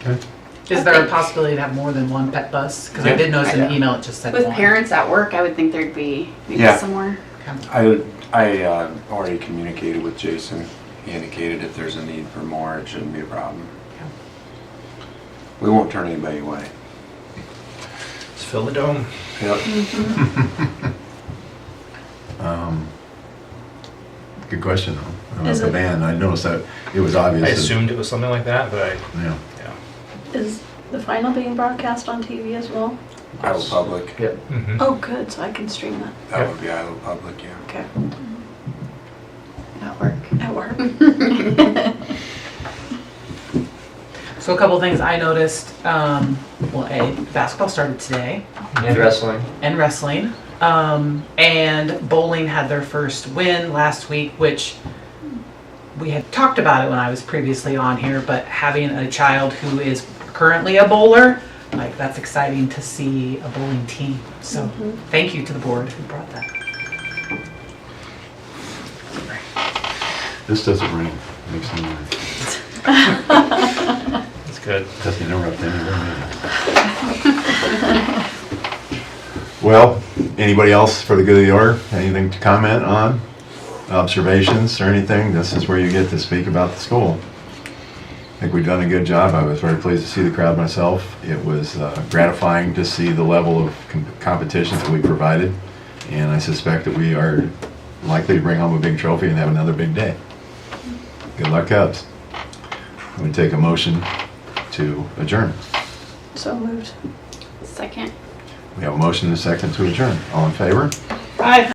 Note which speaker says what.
Speaker 1: Is there a possibility to have more than one pet bus? Because I
Speaker 2: Yeah.
Speaker 1: did notice in the
Speaker 3: Yeah.
Speaker 1: email it just said
Speaker 4: With
Speaker 1: one.
Speaker 4: parents at work, I would think there'd be maybe
Speaker 2: Yeah.
Speaker 4: somewhere.
Speaker 2: I, would- I uh, already communicated with Jason. He indicated if there's a need for more, it shouldn't be a problem. We won't turn anybody away.
Speaker 3: Let's fill the dome.
Speaker 2: Yep.
Speaker 5: Um, Good question, though. About
Speaker 6: Is
Speaker 5: the
Speaker 6: it-
Speaker 5: ban, I noticed that it was obvious.
Speaker 3: I
Speaker 5: that-
Speaker 3: assumed it was something like that, but I,
Speaker 5: Yeah.
Speaker 3: yeah.
Speaker 6: Is the final being broadcast on TV as well?
Speaker 2: Iowa Public.
Speaker 3: Yep. hmm
Speaker 6: Oh, good, so I can stream that.
Speaker 2: That would be Iowa Public, yeah.
Speaker 6: Okay,
Speaker 4: At work.
Speaker 6: Mm-hmm. at work.
Speaker 1: So a couple things I noticed, um, well, A, basketball started today
Speaker 7: And wrestling.
Speaker 1: and wrestling. Um, and bowling had their first win last week, which we had talked about it when I was previously on here, but having a child who is currently a bowler, like that's exciting to see a bowling team. So
Speaker 4: Mm-hmm.
Speaker 1: thank you to the board who brought that.
Speaker 5: This doesn't ring. Makes no noise.
Speaker 3: That's good.
Speaker 5: Doesn't interrupt any of our meetings. Well, anybody else for the good of the order? Anything to comment on? Observations or anything? This is where you get to speak about the school. I think we've done a good job. I was very pleased to see the crowd myself. It was uh, gratifying to see the level of com- competition that we provided. And I suspect that we are likely to bring home a big trophy and have another big day. Good luck, Cubs. I'm going to take a motion to adjourn.
Speaker 6: So moved.
Speaker 4: Second.
Speaker 5: We have a motion and a second to adjourn. All in favor?
Speaker 1: Bye.